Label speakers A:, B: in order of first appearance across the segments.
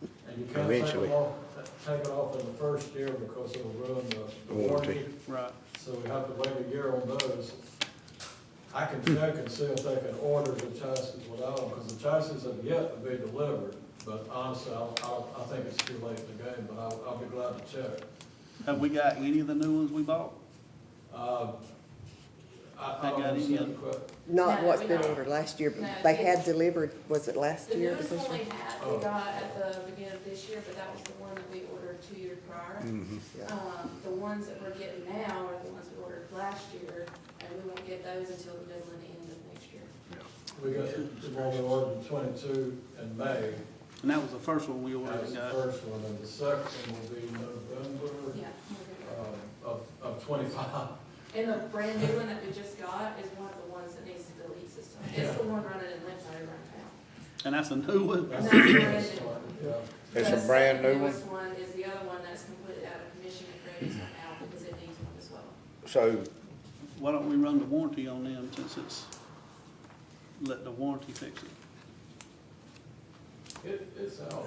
A: You can't take
B: Eventually.
A: it off, take it off in the first year because it'll ruin the- the
B: The warranty.
A: warranty.
C: Right.
A: So we have to wait a year on those. I can check and see if they can order the chassis without them, because the chassis have yet to be delivered. But honestly, I, I, I think it's too late in the game, but I'll, I'll be glad to check.
C: Have we got any of the new ones we bought?
A: Uh, I, I
C: They
A: don't
C: got any
A: understand the que-
D: Not
E: No,
D: what's
E: we
D: been
E: don't.
D: ordered last year,
E: No,
D: but they had
E: it's-
D: delivered, was it last
E: The
D: year? or
E: newest
D: this
E: one we
D: year?
E: had, we got at the beginning of this year, but that was the one that we ordered two years prior.
B: Mm-hmm.
D: Yeah.
E: Um, the ones that we're getting now are the ones we ordered last year, and we won't get those until the middle and end of next year.
A: We got the one we ordered in twenty-two in May,
C: And that was the first one we
A: that
C: ordered
A: was
C: and
A: the
C: got.
A: first one, and the second one will be November,
E: Yeah. we're
A: um, of, of twenty-five.
E: good. And the brand new one that we just got is one of the ones that needs to be leak system. It's the one running in Lynchburg right now.
C: And that's a new one?
A: That's
E: That's
A: the
E: the
A: first
E: original.
A: one, yeah.
B: It's a
E: The
B: brand
E: second
B: new one?
E: newest one is the other one that's completely out of commission and Grady's one out because it needs one as well.
B: So,
C: Why don't we run the warranty on them since it's, let the warranty fix it?
A: It, it's out.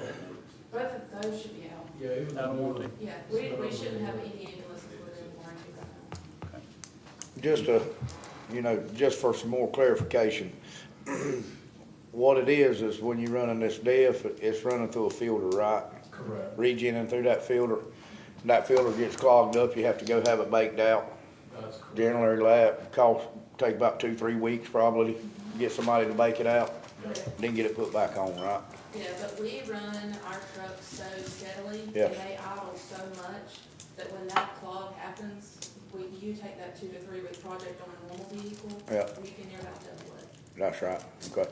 E: Both of those should be out.
A: Yeah, even
C: Out of
A: though
C: warranty.
E: Yeah, we, we shouldn't have any ambulance included in warranty right now.
B: just a, you know, just for some more clarification, what it is, is when you're running this diff, it's running through a filter, right?
A: Correct.
B: Regenerating through that filter, and that filter gets clogged up, you have to go have it baked out.
A: That's correct.
B: Generally, that cost, take about two, three weeks probably, get somebody to bake it out, then get it put back on, right?
E: Yeah, but we run our trucks so steadily, and
B: Yeah.
E: they idle so much, that when that clog happens, we, you take that two to three week project on a normal vehicle.
B: Yeah.
E: You can near about double it.
B: That's right, okay.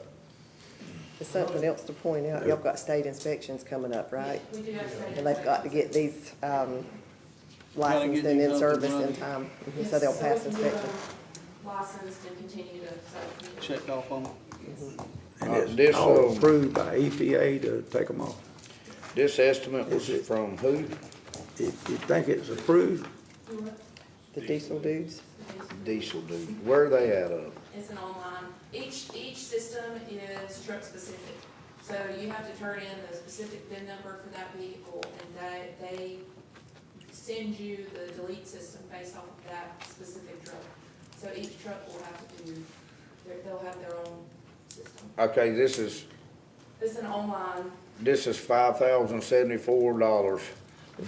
D: There's something else to point out, y'all got state inspections coming up, right?
E: We do have state.
D: And they've got to get these, um,
C: Gotta get
D: licensed and
C: these
D: in
C: up
D: service
C: and
D: in time, Mhm, so they'll pass inspection.
E: License to continue to, so.
C: Checked off on it?
F: And it's
B: This,
F: all
B: um,
F: approved by EPA to take them off.
B: This estimate was
F: Is it-
B: from who?
F: If you think it's approved,
D: The diesel dudes,
B: Diesel dude. Where are they at uh? of?
E: It's an online, each, each system is truck specific. So you have to turn in the specific VIN number for that vehicle and they, they send you the delete system based off of that specific truck. So each truck will have to do, their- they'll have their own system.
B: Okay, this is,
E: It's an online,
B: this is five thousand seventy-four dollars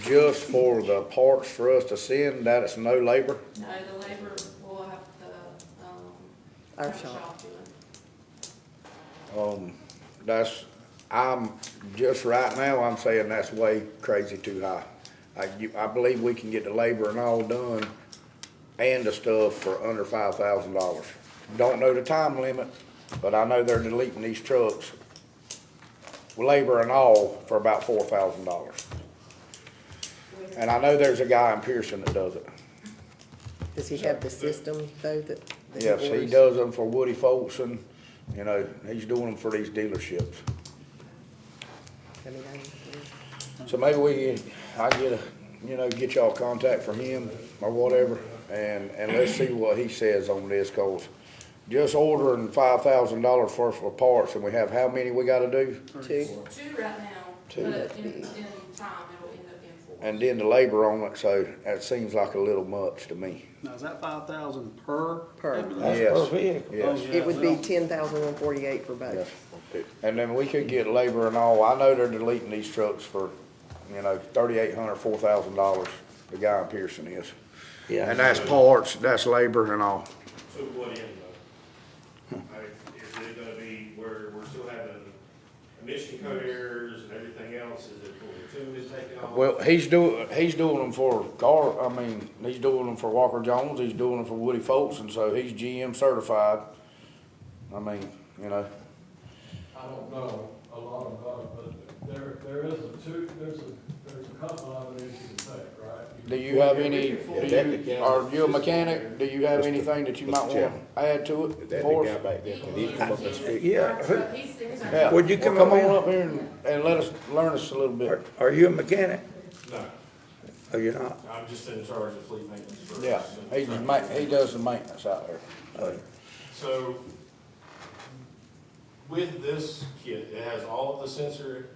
B: just for the parts for us to send, that is no labor?
E: no, the labor will have the, um,
D: our
E: truck
D: shop.
E: shop do it.
B: Um, that's, I'm, just right now, I'm saying that's way crazy too high. I, you, I believe we can get the labor and all done and the stuff for under five thousand dollars. Don't know the time limit, but I know they're deleting these trucks, labor and all, for about four thousand dollars. And I know there's a guy in Pearson that does it.
D: Does he have the system though that? that
B: Yes, he
D: orders?
B: does them for Woody Folks and, you know, he's doing them for these dealerships.
D: I mean, I-
B: So maybe we, I get a, you know, get y'all contact from him or whatever, and, and let's see what he says on this, cause just ordering five thousand dollars worth of parts, and we have how many we gotta do?
D: Two,
E: Two right now,
D: Two.
E: but in, in time, it'll end up in four.
B: And then the labor on it, so that seems like a little much to me.
C: Now, is that five thousand per?
D: Per.
C: ambulance?
F: that's per
B: Yes.
F: vehicle.
B: Yes,
C: Oh, yeah,
D: it would
C: we
D: be
C: don't-
D: ten thousand one forty-eight for
B: yes.
D: both.
B: And then we could get labor and all, I know they're deleting these trucks for, you know, thirty-eight hundred, four thousand dollars, the guy in Pearson is. And
F: Yeah,
B: that's parts, that's labor and all.
G: So what end though? I mean, Is it gonna be where we're still having emission code errors and everything else, is it for the tune is taken off?
B: Well, he's doing, he's doing them for Gar, I mean, he's doing them for Walker Jones, he's doing them for Woody Folks, and so he's GM certified. I mean, you know,
A: I don't know a lot about it, but there, there is a two, there's a, there's a couple of it you can take, right?
B: do you have any, do you, are you a mechanic? Do you have anything that you might want to add to it for us?
F: Yeah, who-
E: He's, he's our.
B: Yeah,
F: Would you
B: well,
F: come
B: Come
F: up here?
B: on up here and, and let us, learn us a little
F: are,
B: bit.
F: are you a mechanic?
G: No,
F: Or you're not?
G: I'm just in charge of fleet maintenance for.
B: Yeah, he, ma- he does the maintenance out there. so.
G: So with this kit, it has all of the sensor